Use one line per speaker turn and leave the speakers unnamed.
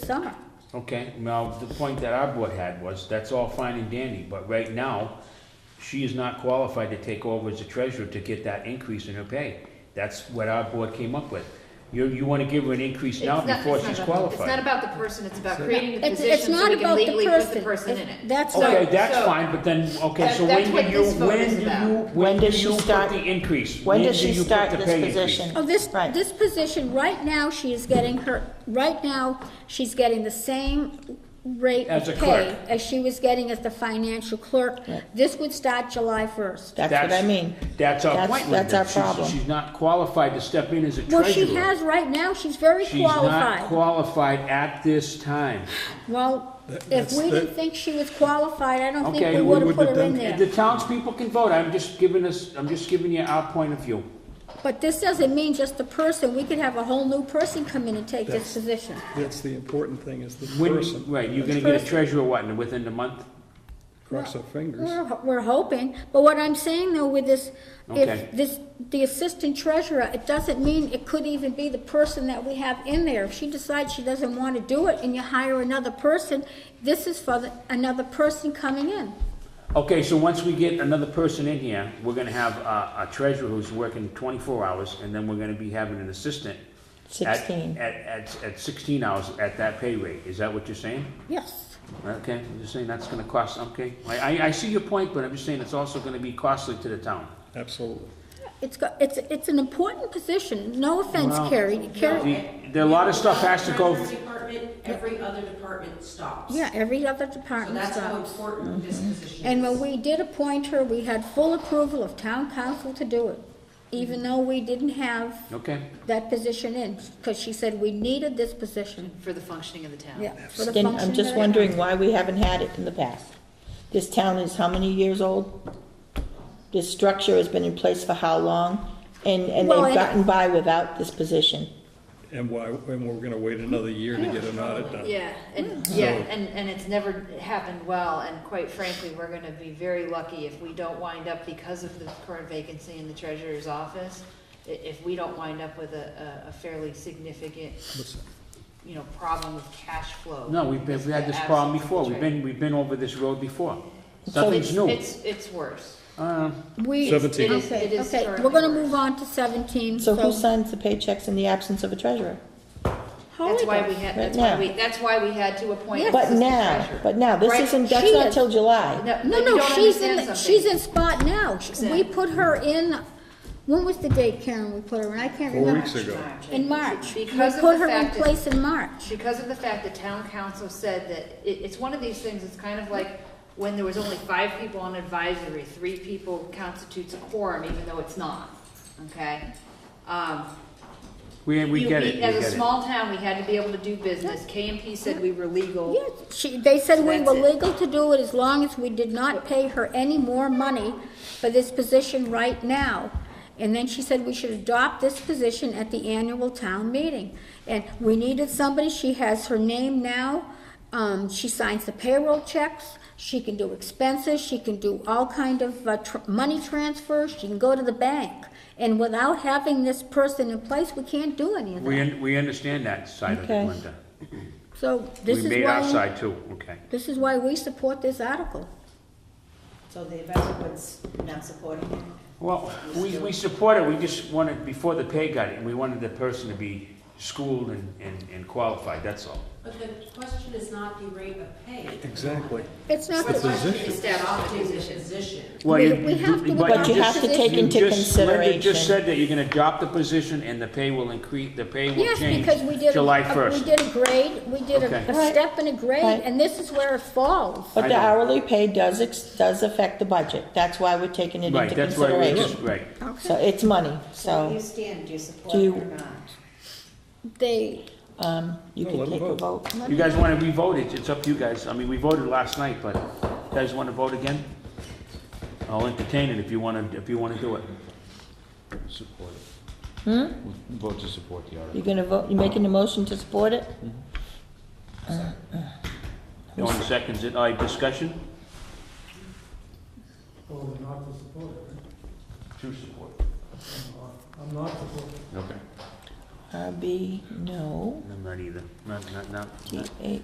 summer.
Okay, now, the point that our board had was, that's all fine and dandy, but right now, she is not qualified to take over as a treasurer to get that increase in her pay. That's what our board came up with. You, you wanna give her an increase
It's
now
not- it's
before
not
she's
about- It's not
qualified.
about the person, it's about creating the
It's,
position
it's
so
not
we can
about
legally
the
put the
person.
person in it.
That's
Okay,
not,
that's
so-
fine, but then, okay,
That-
so
that's
when
what
do you,
this vote
when
is
do
about.
you, when
When
do
does she
you put
start-
the increase?
When does
do
she
you put
start
the
this
pay increase?
position?
oh, this,
Right.
this position, right now, she is getting her, right now, she's getting the same rate
As a
of
clerk.
pay as she was getting as the financial clerk. This would start July first.
That's what I mean.
That's our
That's-
point, Linda.
that's our
She's-
problem.
She's not qualified to step in as a treasurer.
Well, she has right now, she's very
She's not
qualified.
qualified at this time.
Well, if
that's-
we didn't
that-
think she was qualified, I don't think
Okay,
we
we
would have
wouldn't
put
have
her in there.
done-
The townspeople can vote, I'm just giving us, I'm just giving you our point of view.
But this doesn't mean just the person, we could have a whole new person come in and take this
That's-
position.
That's the important thing, is the
When,
person.
right, you're gonna get a
Person.
treasurer, what, in- within the month?
Cross our fingers.
We're, we're hoping, but what I'm saying though with this,
Okay.
if this, the assistant treasurer, it doesn't mean it could even be the person that we have in there. If she decides she doesn't want to do it and you hire another person, this is for the, another person coming in.
Okay, so once we get another person in here, we're gonna have a, a treasurer who's working twenty-four hours, and then we're gonna be having an assistant. at-
16.
At, at, at sixteen hours at that pay rate, is that what you're saying?
Yes.
Okay, I'm just saying that's gonna cost, okay, I, I, I see your point, but I'm just saying it's also gonna be costly to the town.
Absolutely.
It's got, it's, it's an important position. No offense,
Well,
Carrie. Carrie,
The- There, a lot of stuff has to go.
Treasury Department, every other department stops.
yeah, every other
So
department
that's how
stops.
important this position is.
And when we did appoint her, we had full approval of town council to do it, even though we didn't have
Okay,
that position in, because she said we needed this position,
For the functioning of the town.
yeah. for the
And I'm
function
just
that it-
wondering why we haven't had it in the past. This town is how many years old? This structure has been in place for how long? And, and
Well, it-
they've gotten by without this position.
And why, and we're gonna wait another year to get an audit done.
Yeah, and,
Hmm.
yeah, and, and it's never happened well, and quite frankly, we're gonna be very lucky if we don't wind up, because of the current vacancy in the treasurer's office, i- if we don't wind up with a, a- a fairly significant, you know, problem with cash flow.
no, we've been, we had this problem before, we've been, we've been over this road before.
So
Nothing's new.
It's, it's worse.
Uh,
We.
It
Seventeen.
is- it
Okay,
is
okay, we're
currently
gonna
worse.
move on to seventeen, so.
So who signs the paychecks in the absence of a treasurer?
That's why we
Holiday.
had,
Right
that's why
now.
we, that's why we had to appoint. an
But
assistant
now,
treasurer.
but now, this
Right?
isn't, that's
she
not
is.
till July.
No,
you
no,
don't
she's
understand
in,
something.
she's in spot now. She- We
Exactly.
put her in, when was the date, Karen, we put her in? I can't
Four
remember.
weeks ago.
In March. We
Because of
put
the
her in
fact that-
place in March.
Because of the fact that town council said that, it, it's one of these things, it's kind of like when there was only five people on advisory, three people constitutes a quorum, even though it's not, okay? Um,
We, we
you-
get it, we get
As a
it.
small town, we had to be able to do business, KMP said we were legal.
Yes, she, they said we
That's
were
it.
legal to do it as long as we did not pay her any more money for this position right now. And then she said we should adopt this position at the annual town meeting. And we needed somebody, she has her name now, um, she signs the payroll checks, she can do expenses, she can do all kind of uh, tr- money transfers, she can go to the bank. And without having this person in place, we can't do any of
We,
that.
un- we understand that side of it,
Okay.
Linda.
So this is
We
why.
made our side too, okay.
This is why we support this article.
So the advisory board's not supporting it?
Well, we, we support it, we just wanted, before the pay got it, we wanted the person to be schooled and, and, and qualified, that's all.
But the question is not the rate of pay.
Exactly.
It's not,
The
It's a
that-
question
position.
is that off the position.
Well,
We-
you-
we have to-
But you have to
just-
take
you
into
just- Linda
consideration-
just said that you're gonna drop the position and the pay will increase, the pay will
yes,
change
because we did, a-
July
a- we
first.
did a grade, we did a-
Okay.
a step and a grade,
Right.
and this is where it falls.
But the
I know.
hourly pay does, ex- does affect the budget. That's why we're taking it
Right,
into
that's why we just,
consideration.
right.
So it's money,
So where do you
so
stand, do you support
Do
it
you-
or not?
They,
um, you
No,
can
let 'em
take a
vote.
vote.
You guys wanna re-vote it, it's up to you guys, I mean, we voted last night, but you guys wanna vote again? I'll entertain it if you wanna, if you wanna do it.
Support it. Hmm? Vote to support the article.
You're gonna vote, you making a motion to support it?
No one seconds it, all right, discussion?
Well, we're not to support it,
To support.
right? I'm not supporting.
Okay.
RB, no.
I'm not either, not, not, not.
T A